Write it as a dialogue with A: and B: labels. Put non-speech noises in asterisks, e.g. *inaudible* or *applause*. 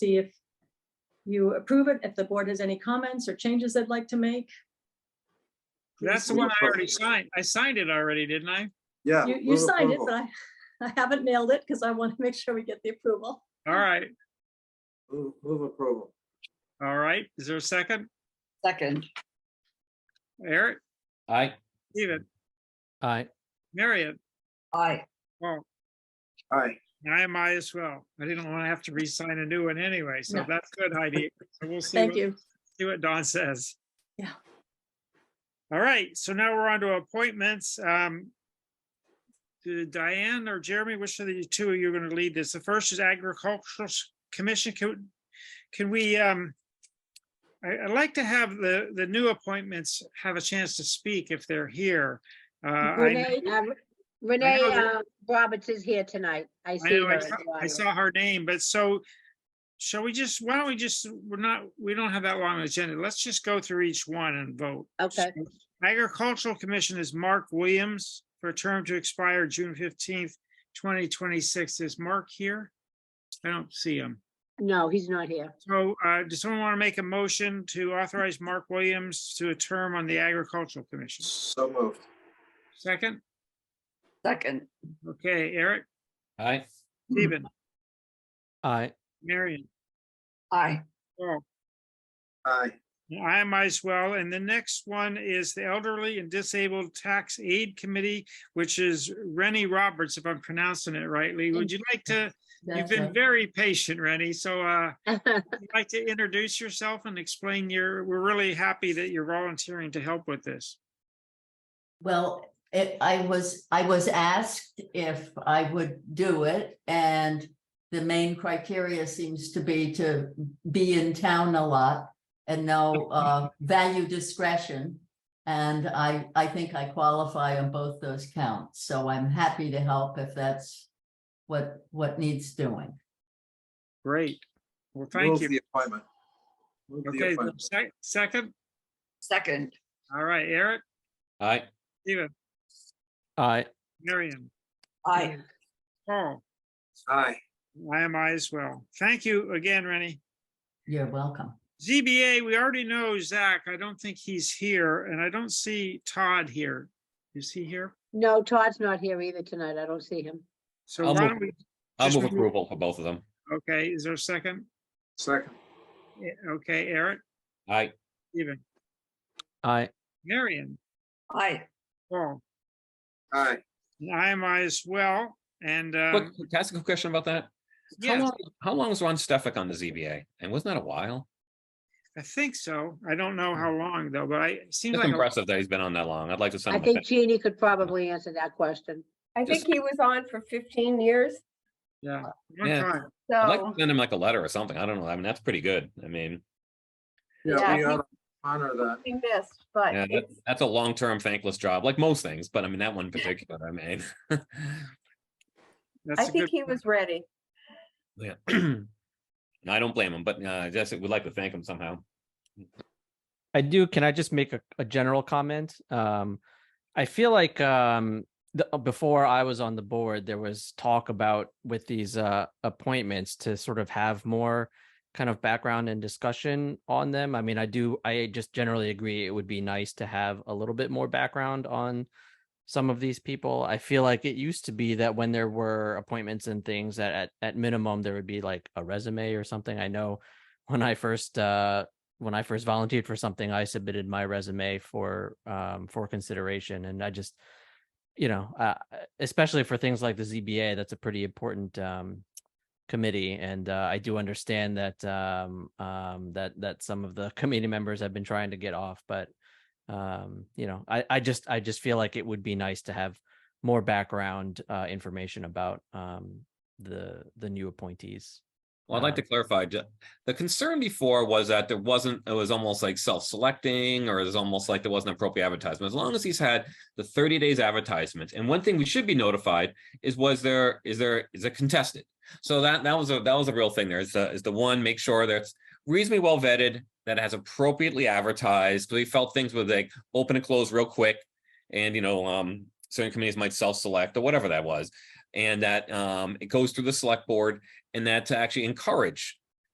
A: see if you approve it, if the board has any comments or changes they'd like to make.
B: That's the
C: Move
B: one I already
C: approval.
B: signed. I signed it already, didn't I?
C: Yeah.
A: You, you
C: move
A: signed it,
C: approval.
A: but I, I *laughs* haven't mailed it because I want to make sure we get the approval.
B: All right,
C: Move move approval.
B: all right. Is there a second?
D: Second,
B: Eric,
E: Aye.
B: Steven,
E: Aye.
B: Marion,
D: aye.
B: oh,
C: All right.
B: I am I as well. I didn't want to have to re-sign a new one anyway, so
A: No.
B: that's good, Heidi. So we'll see,
A: Thank
B: what-
A: you.
B: see what Don says.
A: Yeah.
B: All right, so now we're on to appointments. Um, do Diane or Jeremy, which of the two are you going to lead this? The first is Agricultural S- Commission. Can, can we, um, I, I'd like to have the, the new appointments have a chance to speak if they're here. Uh, I,
F: Renee, uh, Renee
B: that-
F: uh, Roberts is here tonight. I
B: I
F: see
B: know,
F: her.
B: I
F: in
B: saw,
F: the
B: I
F: audience.
B: saw her name, but so, shall we just, why don't we just, we're not, we don't have that long an agenda. Let's just go through each one and vote.
F: Okay.
B: So, Agricultural Commission is Mark Williams for a term to expire June fifteenth, twenty twenty-six. Is Mark here? I don't see him.
F: No, he's not here. *laughs*
B: So, uh, does someone want to make a motion to authorize Mark Williams to a term on the Agricultural Commission?
C: So moved.
B: Second?
D: Second,
B: Okay, Eric,
E: Aye.
B: Stephen,
E: Aye.
B: Marion,
D: aye.
B: Paul.
C: Aye.
B: I might as well. And the next one is the Elderly and Disabled Tax Aid Committee, which is Rennie Roberts, if I'm pronouncing it rightly. Would you like to, you've been very patient, Rennie. So uh, would you like to introduce yourself and explain your, we're really happy that you're volunteering to help with this.
G: Well, it, I was, I was asked if I would do it and the main criteria seems to be to be in town a lot and no, uh, value discretion. And I, I think I qualify on both those counts, so I'm happy to help if that's what, what needs doing.
B: Great. Well,
C: Move
B: thank you.
C: the appointment. Move the
B: Okay,
C: appointment.
B: sec- second.
D: Second,
B: All right, Eric,
E: Aye.
B: Stephen,
E: Aye.
B: Marion,
D: aye.
B: Paul.
C: Aye.
B: I am I as well. Thank you again, Rennie.
G: You're welcome.
B: ZBA, we already know Zach. I don't think he's here, and I don't see Todd here. Is he here?
F: No, Todd's not here either tonight. I don't see him.
B: So
E: I'll
B: why
E: move.
B: don't we,
E: I'll
B: Just
E: move
B: move-
E: approval for both of them.
B: okay, is there a second?
C: Second.
B: Eh, Okay, Eric,
E: Aye.
B: Stephen,
E: Aye.
B: Marion,
D: Aye.
B: Paul,
C: Aye.
B: and I am I as well. And
E: Quick,
B: um,
E: can I ask a question about that? How
B: yes,
E: long, how long was Ron Stefik on the ZBA? And wasn't that a while?
B: I think so. I don't know how long though, but I it seems
E: It's
B: like, a-
E: impressive that he's been on that long. I'd like to send
F: I
E: him a
F: think
E: thank.
F: Jeannie could probably answer that question.
H: I
E: Just-
H: think he was on for fifteen years,
B: yeah. long
E: Yeah.
B: time.
E: I'd like to
H: so,
E: send him like a letter or something. I don't know. I mean, that's pretty good. I mean,
C: Yeah,
H: Yeah.
C: we ought to honor that.
H: he missed, but
E: yeah, that-
H: it's,
E: that's a long-term thankless job, like most things, but I mean, that one in particular, I mean. *laughs*
B: That's
H: I
B: a
H: think
B: good
H: he
B: point.
H: was ready.
E: Yeah. *clears throat* And I don't blame him, but uh, just would like to thank him somehow.
I: I do. Can I just make a, a general comment? Um, I feel like um, the, uh, before I was on the board, there was talk about with these uh, appointments to sort of have more kind of background and discussion on them. I mean, I do. I just generally agree. It would be nice to have a little bit more background on some of these people. I feel like it used to be that when there were appointments and things that at, at minimum there would be like a resume or something. I know when I first uh, when I first volunteered for something, I submitted my resume for um for consideration, and I just, you know, uh, especially for things like the ZBA, that's a pretty important um committee, and uh, I do understand that um um that that some of the *laughs* committee members have been trying to get off, but um you know, I I just I just feel like it would be nice to have more background uh, information about um the the new appointees.
E: Well, I'd like to
I: Um,
E: clarify, ju- the concern before was that there wasn't, it was almost like self-selecting, or it was almost like there wasn't appropriate advertisement, as long as he's had the thirty days advertisement, and one thing we should be notified is was there, is there, is it contested? So that, that was a, that was a real thing there, is the, is the one, make sure that it's reasonably well vetted, that it has appropriately advertised, 'cause we felt things were like open and close real quick, and you know, um, certain committees might self-select, or whatever that was, and that, um, it goes through the select board, and that to actually encourage